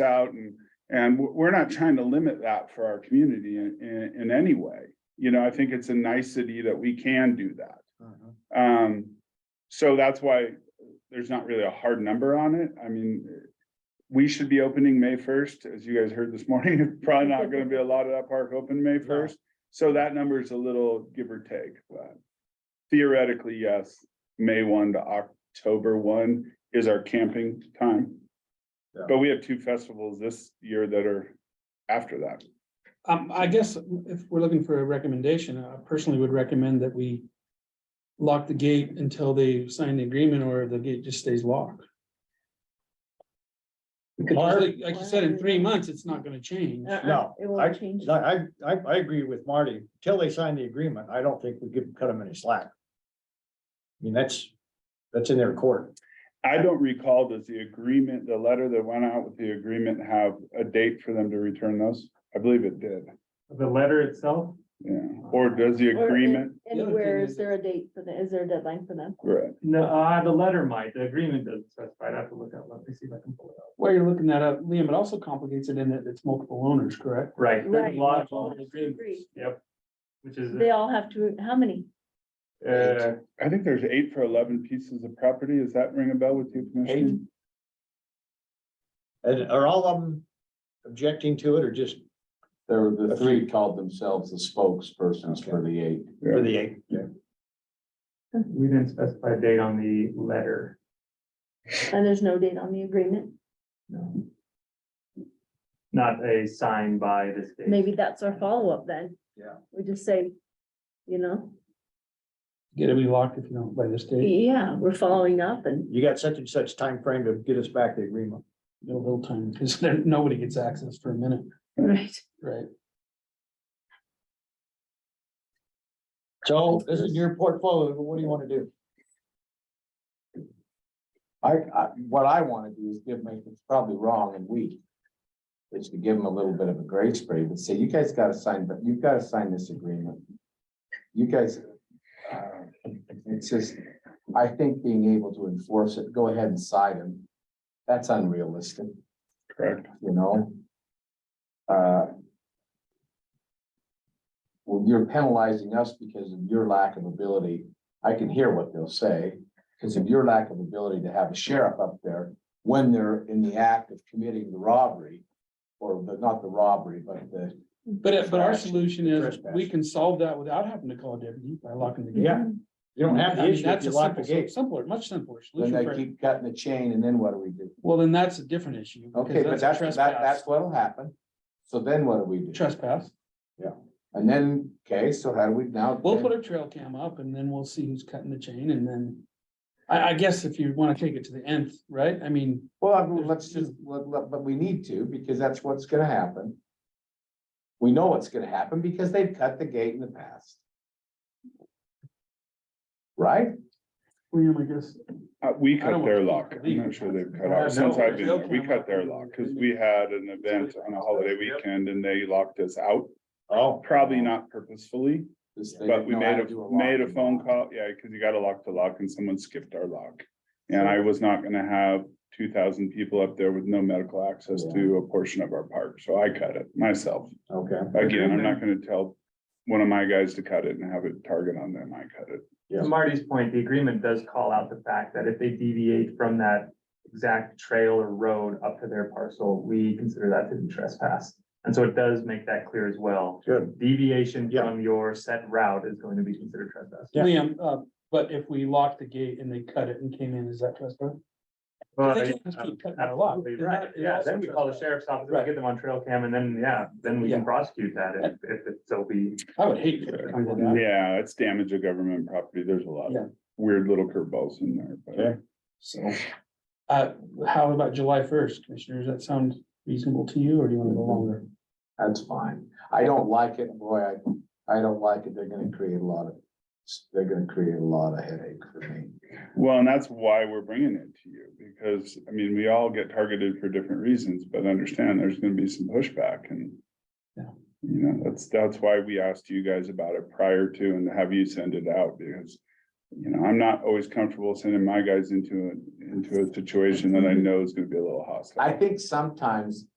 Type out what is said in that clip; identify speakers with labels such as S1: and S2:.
S1: out and, and we're- we're not trying to limit that for our community in, in, in any way. You know, I think it's a nicety that we can do that. Um, so that's why there's not really a hard number on it. I mean, we should be opening May first, as you guys heard this morning, it's probably not gonna be a lot of that park open May first. So that number is a little give or take, but theoretically, yes, May one to October one is our camping time.
S2: Yeah.
S1: But we have two festivals this year that are after that.
S3: Um, I guess if we're looking for a recommendation, I personally would recommend that we lock the gate until they sign the agreement or the gate just stays locked. Because like like you said, in three months, it's not gonna change.
S4: Uh-uh,
S2: No,
S4: It
S2: I,
S4: won't change.
S2: I, I, I agree with Marty. Till they sign the agreement, I don't think we give, cut them any slack. I mean, that's, that's in their court.
S1: I don't recall, does the agreement, the letter that went out with the agreement have a date for them to return those? I believe it did,
S5: The letter itself?
S1: yeah, or does the
S4: Or in-
S1: agreement,
S3: The other
S4: Anywhere,
S3: thing
S4: is
S3: is-
S4: there a date for the, is there a deadline for them?
S1: right,
S5: No, uh, the letter might, the agreement doesn't specify, I'd have to look at, let me see if I can pull it up.
S3: While you're looking that up, Liam, it also complicates it in that it's multiple owners, correct?
S5: Right.
S4: Right.
S5: there's a lot of
S4: Well,
S5: multiple
S4: it's
S5: agreements,
S4: agreed.
S5: Yep. Which is,
S4: They all have to, how many?
S5: uh,
S1: I think there's eight for eleven pieces of property, does that ring a bell with you? Commissioner?
S3: Eight.
S2: And are all of them objecting to it or just
S6: There were the three called themselves the spokespersons for the eight.
S2: for the eight? Yeah.
S5: we didn't specify a date on the letter.
S4: And there's no date on the agreement.
S5: Not a sign by this date.
S4: Maybe that's our follow-up then.
S2: Yeah.
S4: We just say, you know,
S3: Get it locked if you don't by this date,
S4: yeah, we're following up and
S2: You got such and such time frame to get us back the agreement.
S3: no little time, because then nobody gets access for a minute,
S4: right.
S3: right?
S2: So this is your portfolio. What do you want to do?
S6: I, I, what I wanna do is give them, it's probably wrong and weak. Is to give them a little bit of a grace period and say, you guys gotta sign, but you've gotta sign this agreement. You guys, uh, it's just, I think being able to enforce it, go ahead and sign them. That's unrealistic,
S1: Correct,
S6: you know? Uh. Well, you're penalizing us because of your lack of ability. I can hear what they'll say. Because of your lack of ability to have a sheriff up there when they're in the act of committing the robbery. Or the, not the robbery, but the,
S3: But, it- but our
S6: Trash.
S3: solution is,
S6: Trespass.
S3: we can solve that without having to call a deputy by locking the gate.
S2: Yeah. You don't have
S3: I
S2: the
S3: mean,
S2: issue if
S3: that's
S2: you
S3: a
S2: lock the
S3: simple-
S2: gate.
S3: Simpler, much simpler
S6: then
S3: solution.
S6: they
S3: for-
S6: keep cutting the chain and then what do we do?
S3: Well, then that's a different issue. because
S6: Okay, but
S3: a
S6: that's, that,
S3: trespass-
S6: that's what'll happen. So then what do we do?
S3: Trespass.
S6: And then, okay, so how do we now?
S3: We'll put a trail cam up and then we'll see who's cutting the chain and then. I, I guess if you want to take it to the nth, right? I mean,
S6: Well, I mean, let's just, let- let- but we need to, because that's what's gonna happen. We know what's gonna happen because they've cut the gate in the past. Right?
S3: Liam, I guess.
S1: uh, we
S3: I
S1: cut
S3: don't
S1: their
S3: want
S1: lock,
S3: to
S1: I'm
S3: leave.
S1: not sure they've
S3: Oh,
S1: cut ours,
S3: no.
S1: since I've been, there. we
S3: Okay.
S1: cut their lock, cause we had an event on a holiday weekend and they locked us out.
S2: Oh,
S1: Probably not purposefully,
S6: This- they
S1: but
S6: didn't
S1: we
S6: know how
S1: made
S6: to
S1: a,
S6: do lock
S1: made a
S6: and
S1: phone
S6: lock.
S1: call, yeah, cause you gotta lock the lock and someone skipped our lock. And I was not gonna have two thousand people up there with no medical access to a portion of our park, so I cut it myself.
S2: okay.
S1: Again, I'm not gonna tell one of my guys to cut it and have it target on them, I cut it.
S2: Yeah.
S5: To Marty's point, the agreement does call out the fact that if they deviate from that exact trail or road up to their parcel, we consider that to be trespass. And so it does make that clear as well.
S2: Good.
S5: Deviation
S2: Yeah.
S5: from your set route is going to be considered trespass.
S2: Yeah.
S3: Liam, uh, but if we locked the gate and they cut it and came in, is that trespass? They can't
S5: uh,
S3: just keep cutting our lock.
S5: Absolutely
S3: They're
S5: right.
S3: not- they're
S5: Yeah,
S3: also
S5: then we call the
S3: trespassing.
S5: sheriff's office, we
S3: Right.
S5: get them on trail cam and then, yeah, then we can
S3: Yeah.
S5: prosecute that if, if it still be.
S3: I would hate for it to come to that.
S1: Yeah, it's damage of government property, there's a lot
S3: Yeah.
S1: of weird little curveballs in there,
S2: Yeah.
S1: but.
S3: So. Uh, how about July first, commissioners? That sound reasonable to you or do you want to go longer?
S6: That's fine. I don't like it, boy, I, I don't like it. They're gonna create a lot of, they're gonna create a lot of headache for me.
S1: Well, and that's why we're bringing it to you, because, I mean, we all get targeted for different reasons, but understand there's gonna be some pushback and.
S3: Yeah.
S1: You know, that's, that's why we asked you guys about it prior to and have you send it out, because you know, I'm not always comfortable sending my guys into a, into a situation that I know is gonna be a little hostile.
S6: I think sometimes